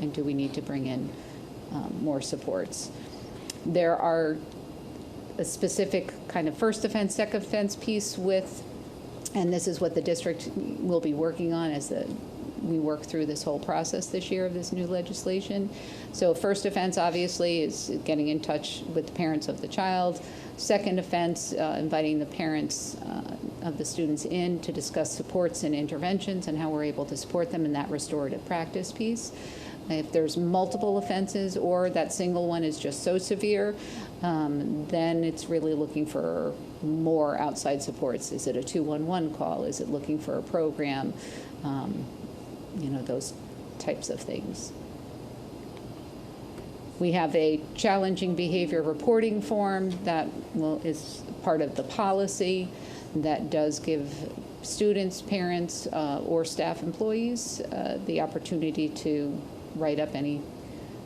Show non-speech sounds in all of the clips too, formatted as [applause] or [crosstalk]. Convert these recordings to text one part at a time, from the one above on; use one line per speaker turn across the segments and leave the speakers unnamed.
and do we need to bring in um, more supports? There are a specific kind of first offense, second offense piece with, and this is what the district will be working on as the, we work through this whole process this year of this new legislation. So first offense, obviously, is getting in touch with the parents of the child. Second offense, uh, inviting the parents uh, of the students in to discuss supports and interventions and how we're able to support them in that restorative practice piece. Uh, If there's multiple offenses or that single one is just so severe, um, then it's really looking for more outside supports. Is it a 211 call? Is it looking for a program? Um, you know, those types of things. We have a challenging behavior reporting form that will, is part of the policy that does give students, parents, uh, or staff employees uh, the opportunity to write up any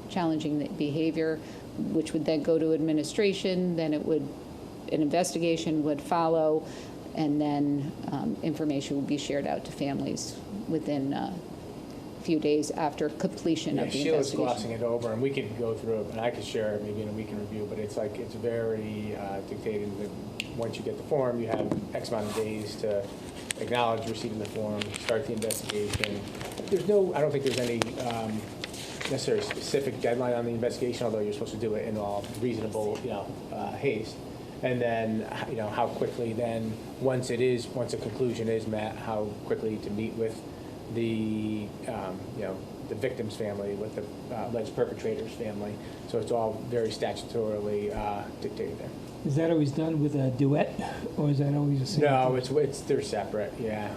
challenging behavior, which would then go to administration, then it would, an investigation would follow, and then um, information would be shared out to families within uh, a few days after completion
Yeah,
of the
Sheila's
investigation.
glossing it over, and we can go through it, and I could share it maybe in a week in review, but it's like, it's very uh, dictated that once you get the form, you have X amount of days to acknowledge receiving the form, start the investigation. There's no, I don't think there's any um, necessarily specific deadline on the investigation, although you're supposed to do it in all reasonable, you know, uh, haste. And then, h- you know, how quickly then, once it is, once a conclusion is met, how quickly to meet with the, um, you know, the victim's family with the uh, alleged perpetrator's family. So it's all very statutorily uh, dictated there.
Is that always done with a duet, or is that always a single?
No, it's, it's, they're separate, yeah.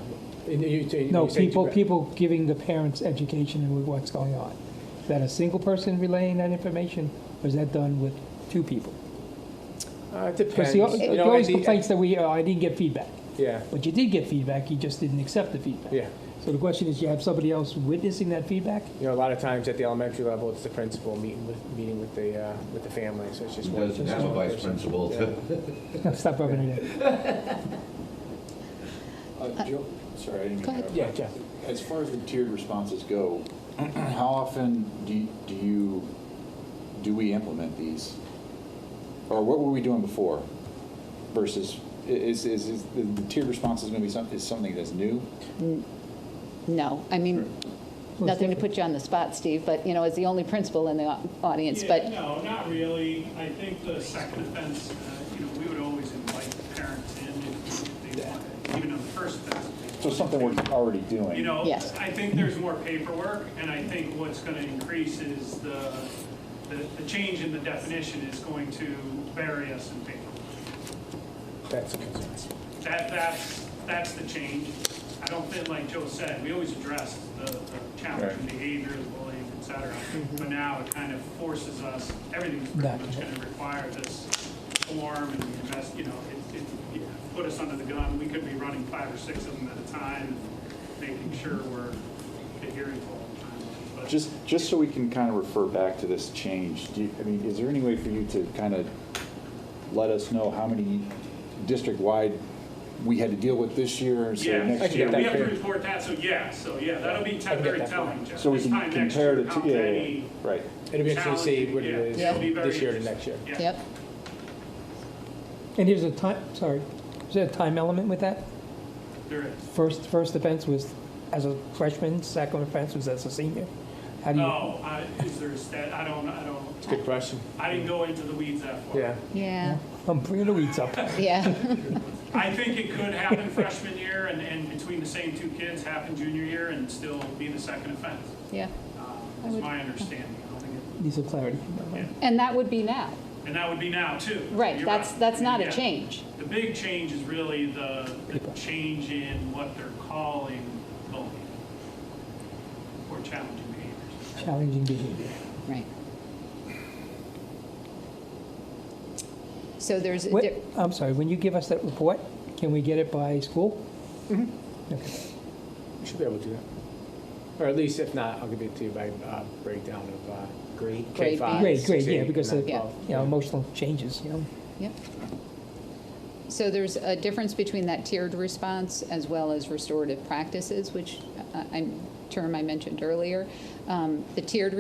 And you- you-
No,
you say
people,
direct-
people giving the parents education and what's going on. Is that a single person relaying that information, or is that done with two people?
Uh, It depends.
Because the
You
the
know,
always
at the-
complaints that we, uh, I didn't get feedback.
Yeah,
But you did get feedback, you just didn't accept the feedback.
yeah.
So the question is, you have somebody else witnessing that feedback? [laughs]
You know, a lot of times at the elementary level, it's the principal meeting with, meeting with the, uh, with the family, so it's just
He
one.
doesn't
just
have a
one
vice
person.
principal to
Stop rubbing it in.
Uh, Joe, sorry, I didn't mean
go
to
ahead.
[laughs]
interrupt.
Yeah, Jeff.
As far as the tiered responses go, [clears throat] how often do you- do you, do we implement these? Or what were we doing before versus, i- is, is, is the the tiered response is going to be something, is something that's new?
No, I mean, nothing to put you on the spot, Steve, but, you know, as the only principal in the au- audience,
Yeah,
but,
No, not really. I think the second offense, uh, you know, we would always invite the parents in if they wanted, even on the first offense.
So something we're already doing?
You know,
Yes.
I think there's more paperwork, and I think what's going to increase is the, the the change in the definition is going to bury us in paperwork.
That's a concern.
That, that's, that's the change. I don't think, like Joe said, we always address the the challenging behavior, the bullying, et cetera.
Mm-hmm.
But now it kind of forces us, everything's pretty much
Document.
going to require this form and invest, you know, it, it it put us under the gun. We could be running five or six of them at a time, making sure we're adhering to all the time. But-
Just, just so we can kind of refer back to this change, do you, I mean, is there any way for you to kind of let us know how many district-wide we had to deal with this year, so
Yeah,
next
get
year?
that
we have to
clear.
report that, so yeah, so yeah, that'll be te-
I can get
very
that for you.
telling, Jeff.
So we
This
can
time next
compare
year,
the
how
two, yeah, yeah,
many
yeah, right.
It'll be interesting to see
Challenging,
what it
yeah.
is
It'll be very
this year to next year.
Yeah.
yep.
And here's a time, sorry, is there a time element with that?
There is.
First, first offense was as a freshman, second offense was as a senior? How do you?
No, Oh, I, is there a stat, I don't, I don't,
Mm. It's a good question.
I didn't go into the weeds that far.
Yeah.
Yeah,
I'm bringing the weeds up.
yeah. [laughs]
I think it could happen [laughs] freshman year and, and between the same two kids, happen junior year and still be the second offense. Uh,
Yeah, I
Is
would-
my understanding. I don't think it-
Need some clarity.
and that would be now,
And that would be now too.
right,
You're
that's, that's
I mean,
not a
yeah.
change.
The big change is really the, the
People.
change in what they're calling bullying or challenging behaviors.
Challenging behavior.
Right. So there's, a
What-
di-
I'm sorry, when you give us that report, can we get it by school? Okay.
We should be able to do that. Or at least, if not, I'll give it to you by uh, breakdown of uh, grade
Grade
K5.
B.
Great, great,
six, eight,
yeah, because,
and
of,
then
you
Yeah.
twelve.
know, emotional changes, you know.
Yep. So there's a difference between that tiered response as well as restorative practices, which uh, I term I mentioned earlier. Um, The tiered